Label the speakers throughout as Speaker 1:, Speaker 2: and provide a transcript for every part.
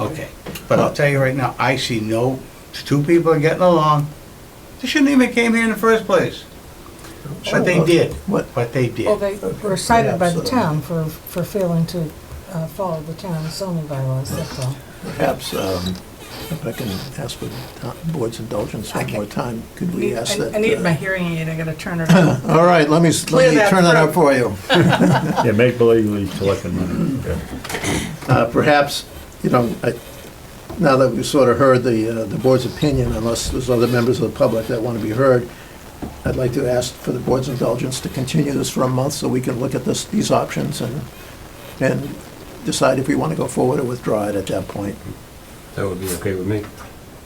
Speaker 1: Okay, but I'll tell you right now, I see no, two people are getting along. They shouldn't even came here in the first place. But they did,
Speaker 2: What?
Speaker 1: but they
Speaker 3: Well,
Speaker 1: did.
Speaker 3: they were cited by the town for, for failing to uh, follow the town zoning bylaws, that's all.
Speaker 2: Perhaps, um, if I can ask for the board's indulgence one
Speaker 4: Okay.
Speaker 2: more time, could we
Speaker 4: I-
Speaker 2: ask that?
Speaker 4: I need
Speaker 2: uh,
Speaker 4: my hearing aid, I gotta turn it on.
Speaker 2: All right, let me, s-
Speaker 4: Clear
Speaker 2: let me
Speaker 4: that
Speaker 2: turn that up
Speaker 4: throat.
Speaker 2: for you.
Speaker 5: Yeah, make believe we collecting money. Yeah.
Speaker 2: Uh, Perhaps, you know, I- now that we've sort of heard the, uh, the board's opinion, unless there's other members of the public that want to be heard, I'd like to ask for the board's indulgence to continue this for a month so we can look at this, these options and, and decide if we want to go forward or withdraw it at that point.
Speaker 6: That would be okay with me.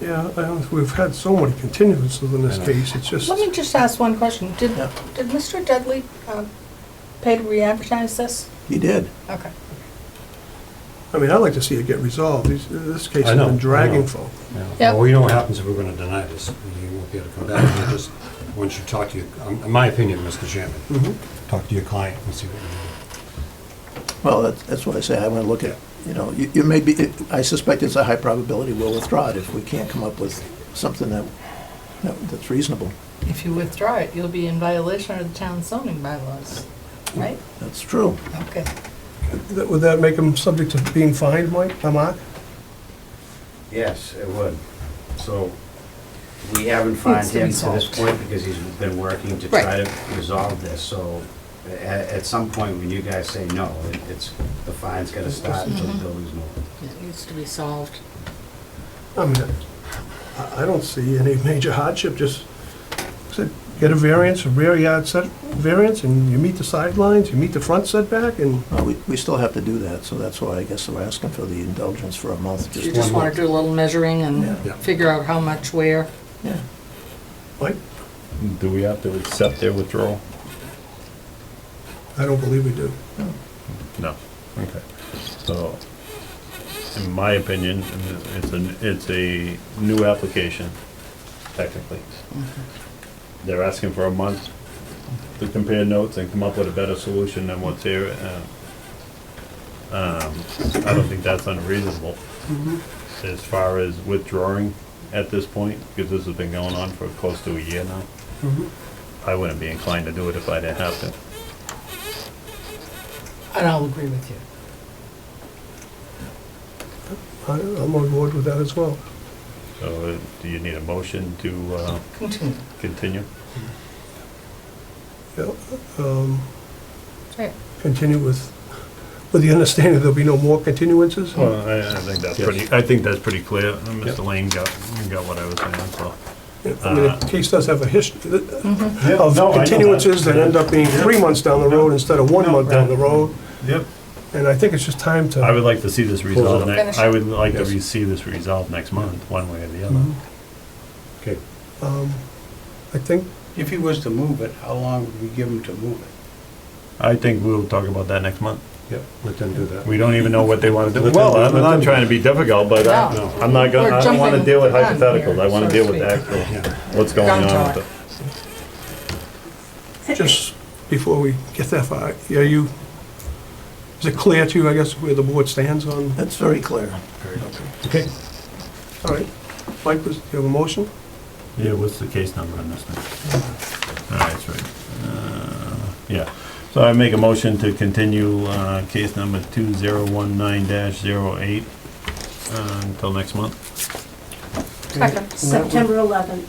Speaker 7: Yeah, I don't- we've had so many continuances in this case, it's just,
Speaker 3: Let me just ask one question. Did,
Speaker 2: Yeah.
Speaker 3: did Mr. Dudley um, pay to re-advertise this?
Speaker 2: He did.
Speaker 3: Okay.
Speaker 7: I mean, I'd like to see it get resolved. These- uh, This case
Speaker 6: I
Speaker 7: has
Speaker 6: know, I
Speaker 7: been
Speaker 6: know.
Speaker 7: dragging for,
Speaker 3: Yep.
Speaker 6: Yeah. Well, we know what happens if we're going to deny this. You won't be able to come back. You just, once you talk to your, um, in my opinion, Mr. Chairman, talk to your client and see what you
Speaker 2: Well, that's, that's what I say, I want to look at, you know, you, you may be, it- I suspect it's a high probability we'll withdraw it if we can't come up with something that, that- that's reasonable.
Speaker 4: If you withdraw it, you'll be in violation of the town zoning bylaws, right?
Speaker 2: That's true.
Speaker 4: Okay.
Speaker 7: That- would that make them subject to being fined, Mike, uh, Mark?
Speaker 8: Yes, it would. So we haven't found
Speaker 4: Needs to be
Speaker 8: him to this
Speaker 4: solved.
Speaker 8: point because he's been working to
Speaker 4: Right.
Speaker 8: try to resolve this. So a- at, at some point, when you guys say no, it- it's, the fine's gonna start until the building's moved.
Speaker 4: It needs to be solved.
Speaker 7: I mean, I- I don't see any major hardship, just said, get a variance, a rear yard set, variance, and you meet the sidelines, you meet the front setback, and
Speaker 2: Well, we, we still have to do that, so that's why I guess we're asking for the indulgence for a month,
Speaker 4: You
Speaker 2: just,
Speaker 4: just wanna do a little measuring
Speaker 2: Yeah.
Speaker 4: and figure out how much where.
Speaker 2: yeah.
Speaker 7: Mike,
Speaker 5: Do we have to accept their withdrawal?
Speaker 7: I don't believe we do.
Speaker 5: No. Okay. So, in my opinion, it's a, it's a new application, technically. They're asking for a month to compare notes and come up with a better solution than what's here. uh, Um, I don't think that's unreasonable as far as withdrawing at this point, because this has been going on for close to a year now. I wouldn't be inclined to do it if I didn't have to.
Speaker 4: And I'll agree with you.
Speaker 7: I- I'm on board with that as well.
Speaker 5: So, uh, do you need a motion to, uh,
Speaker 4: Continue.
Speaker 5: Continue.
Speaker 7: Yeah, um,
Speaker 4: Right.
Speaker 7: Continue with, with the understanding there'll be no more continuances?
Speaker 5: Well, I, I think that's pretty, I think that's pretty clear. Uh, Mr. Lane got, got what I was saying, so.
Speaker 7: I mean, the case does have a history of
Speaker 5: no, I know that.
Speaker 7: continuances that end up being three months down the road instead of one
Speaker 5: No,
Speaker 7: month down
Speaker 5: right.
Speaker 7: the road,
Speaker 5: Yep.
Speaker 7: and I think it's just time to.
Speaker 5: I would like to see this resolved,
Speaker 6: Close
Speaker 4: it.
Speaker 5: next- I would like to
Speaker 6: Yes.
Speaker 5: re- see this resolved next month, one way or the other.
Speaker 7: Mhm.
Speaker 6: do. Okay.
Speaker 7: Um, I think,
Speaker 1: If he was to move it, how long would we give him to move it?
Speaker 5: I think we'll talk about that next month.
Speaker 6: Yep, let them do that.
Speaker 5: We don't even know what they wanna do.
Speaker 6: Let them-
Speaker 5: Well, I'm
Speaker 6: let
Speaker 5: not
Speaker 6: them-
Speaker 5: trying to be difficult, but I-
Speaker 4: No.
Speaker 5: I'm not gonna,
Speaker 4: We're
Speaker 5: I don't wanna
Speaker 4: jumping
Speaker 5: deal with
Speaker 4: the gun here,
Speaker 5: hypotheticals. I wanna
Speaker 4: so
Speaker 5: deal
Speaker 4: to
Speaker 5: with the
Speaker 4: speak.
Speaker 5: actual,
Speaker 6: Yeah.
Speaker 5: what's going
Speaker 4: Gun
Speaker 5: on.
Speaker 4: talk.
Speaker 5: with
Speaker 7: just before we get that far, are you, is it clear to you, I guess, where the board stands on?
Speaker 2: That's very clear.
Speaker 6: Okay.
Speaker 7: All right. Mike, was- do you have a motion?
Speaker 5: the- Yeah, what's the case number on this thing? All right, that's right. Uh, Yeah, so I make a motion to continue, uh, case number two zero one nine dash zero eight, uh, until next month.
Speaker 3: Second.
Speaker 9: September 11th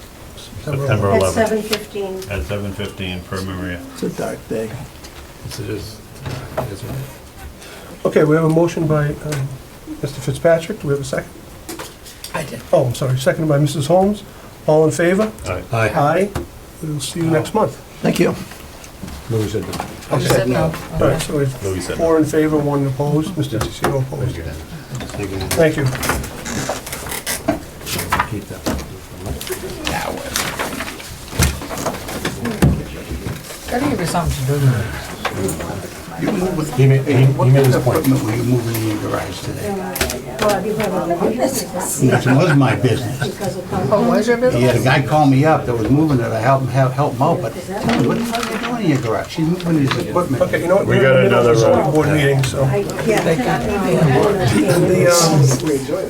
Speaker 5: September
Speaker 9: at
Speaker 5: 11th
Speaker 9: 7:15.
Speaker 5: at 7:15 per Maria.
Speaker 2: It's a dark day.
Speaker 6: Yes, it is. Yes, it is.
Speaker 7: Okay, we have a motion by um, Mr. Fitzpatrick, do we have a second?
Speaker 4: I did.
Speaker 7: Oh, I'm sorry, seconded by Mrs. Holmes. All in favor?
Speaker 6: Aye.
Speaker 7: Aye. We'll see you next month.
Speaker 2: Thank you.
Speaker 6: Louis said that.
Speaker 4: You said no.
Speaker 7: All right, so we have
Speaker 5: Louis said
Speaker 7: four in favor, one opposed, Mr. DeCio
Speaker 6: Thank
Speaker 7: opposed.
Speaker 6: you. Thank you.
Speaker 7: Thank you.
Speaker 6: Keep that.
Speaker 4: Gotta give you something to do.
Speaker 1: You move it-
Speaker 6: He made, he he made his
Speaker 1: What
Speaker 6: point.
Speaker 1: equipment were you moving in your garage today?
Speaker 9: Well, you have a lot of business
Speaker 1: It was my business.
Speaker 9: because of
Speaker 4: Oh, was your
Speaker 1: He had
Speaker 4: business?
Speaker 1: a guy call me up that was moving it, I helped him, help- helped him out, but tell me, what the fuck are you doing in your garage? She's moving his equipment.
Speaker 7: Okay, you know what?
Speaker 5: We
Speaker 7: we're in
Speaker 5: got
Speaker 7: the middle of
Speaker 5: another,
Speaker 7: a
Speaker 5: uh,
Speaker 7: zoning Board meeting, so.
Speaker 9: Yeah. I don't understand.
Speaker 7: The, um,